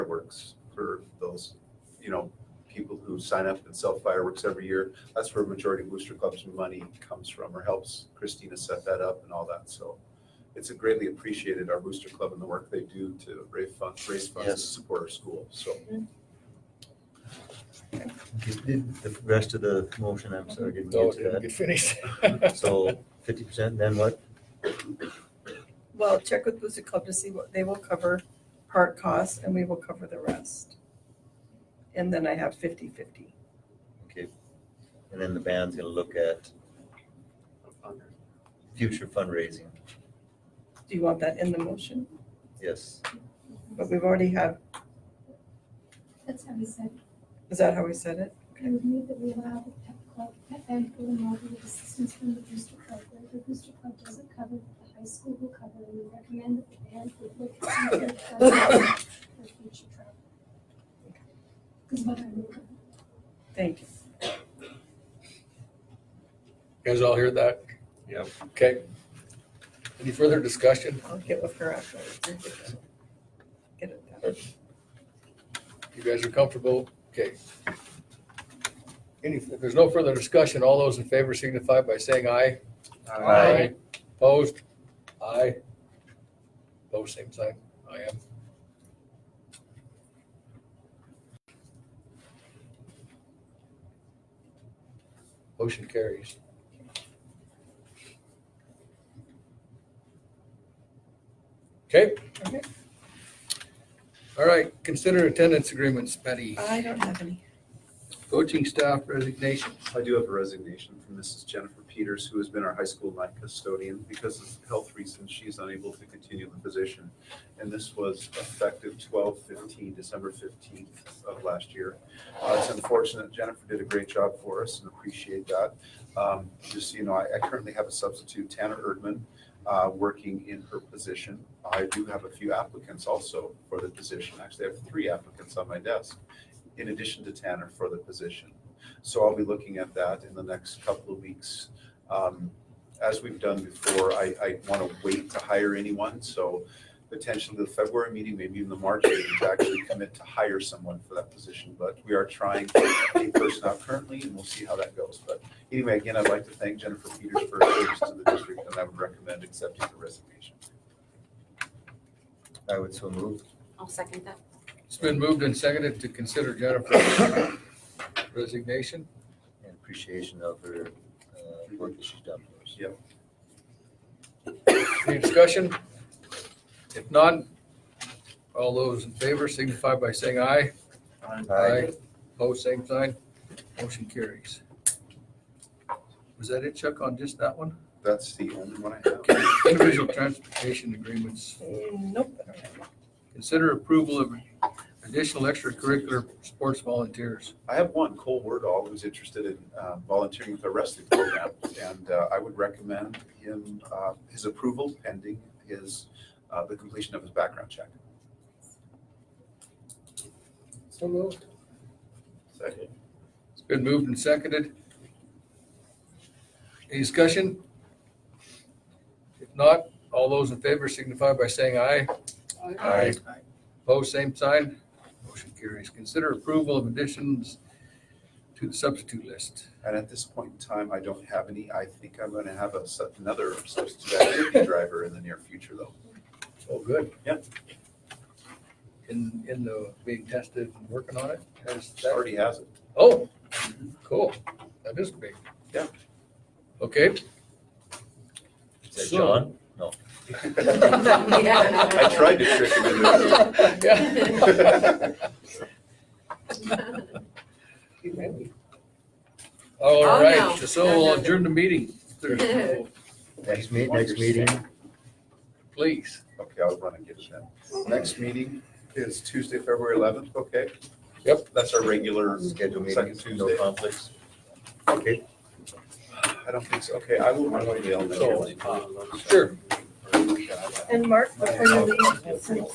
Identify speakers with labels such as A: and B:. A: fireworks for those, you know, people who sign up and sell fireworks every year. That's where majority of Booster Club's money comes from or helps Christina set that up and all that. So it's a greatly appreciated, our Booster Club and the work they do to raise funds, raise funds to
B: Yes.
A: support our school. So
B: Did The rest of the motion, I'm sorry, didn't
C: No,
B: get
C: it didn't
B: to
A: Oh,
C: get finished.
B: that. So fifty percent, then what?
D: Well, check with Booster Club to see what, they will cover part costs and we will cover the rest. And then I have fifty fifty.
B: Okay. And then the band's gonna look at future fundraising.
D: Do you want that in the motion?
B: Yes,
D: But we've already had,
E: That's how we said,
D: is that how we said it?
E: we would need that we allow the pet club, pet band pool and all the assistance from the booster club. Where the booster club doesn't cover, the high school will cover, and we recommend that the band would look at their budget for future travel. Because what I would-
D: Thank you.
C: You guys all hear that?
A: Yep.
C: Okay. Any further discussion?
D: I'll get with her after. we get that. Get it done.
C: You guys are comfortable? Okay. Any, if there's no further discussion, all those in favor signify by saying aye.
B: Aye.
C: Opposed? Aye. Opposed, same sign. I am. Motion carries. Okay.
D: Okay.
C: All right, consider attendance agreements, Betty.
D: I don't have any.
C: Coaching staff resignations.
A: I do have a resignation from Mrs. Jennifer Peters, who has been our high school night custodian. Because of health reasons, she is unable to continue the position. And this was effective 12-15, December fifteenth of last year. Uh, It's unfortunate. Jennifer did a great job for us and appreciate that. Um, Just, so you know, I I currently have a substitute, Tanner Erdman, uh, working in her position. I do have a few applicants also for the position. Actually, I have three applicants on my desk in addition to Tanner for the position. So I'll be looking at that in the next couple of weeks. Um, As we've done before, I, I want to wait to hire anyone, so potentially the February meeting, maybe even the March meeting, to actually commit to hire someone for that position. But we are trying a person out currently, and we'll see how that goes. But anyway, again, I'd like to thank Jennifer Peters for her service to the district, and I would recommend accepting the resignation.
B: I would so move.
F: I'll second that.
C: It's been moved and seconded to consider Jennifer's resignation.
B: And appreciation of her uh, work that she's done for us.
C: Any discussion? If none, all those in favor signify by saying aye. Opposed, same sign. Motion carries. Was that it, Chuck, on just that one?
A: That's the only one I have.
C: Okay. Individual transportation agreements.
D: Nope. I don't have any.
C: Consider approval of additional extracurricular sports volunteers.
A: I have one, Cole Wordall, who's interested in uh, volunteering with our rescue program, and uh, I would recommend him, uh, his approval pending his, uh, the completion of his background check.
C: So moved.
A: Second.
C: It's been moved and seconded. Any discussion? If not, all those in favor signify by saying aye.
B: Aye.
C: Opposed, same sign. Motion carries. Consider approval of additions to the substitute list.
A: And at this point in time, I don't have any. I think I'm going to have a sub- another substitute activity driver in the near future, though.
C: Oh, good.
A: Yep.
C: In, in the, being tested and working on it? Has that-
A: Already has it.
C: Oh, cool. That is big.
A: Yeah.
C: Okay.
B: Is that
C: So-
B: John?
A: I tried to trick him into
C: Yeah. All
F: Oh, no.
C: right, so
F: No, no,
C: we'll
F: no.
C: adjourn the meeting. There's-
B: Next meet, next meeting,
C: Please.
A: Okay, I'll run and get it then. Next meeting is Tuesday, February 11th, okay?
C: Yep.
A: That's our regular
B: schedule
A: Second
B: meetings, no
A: Tuesday.
B: conflicts. Okay.
A: I don't think so. Okay, I will run the
C: Sure.
D: And Mark, before you leave, since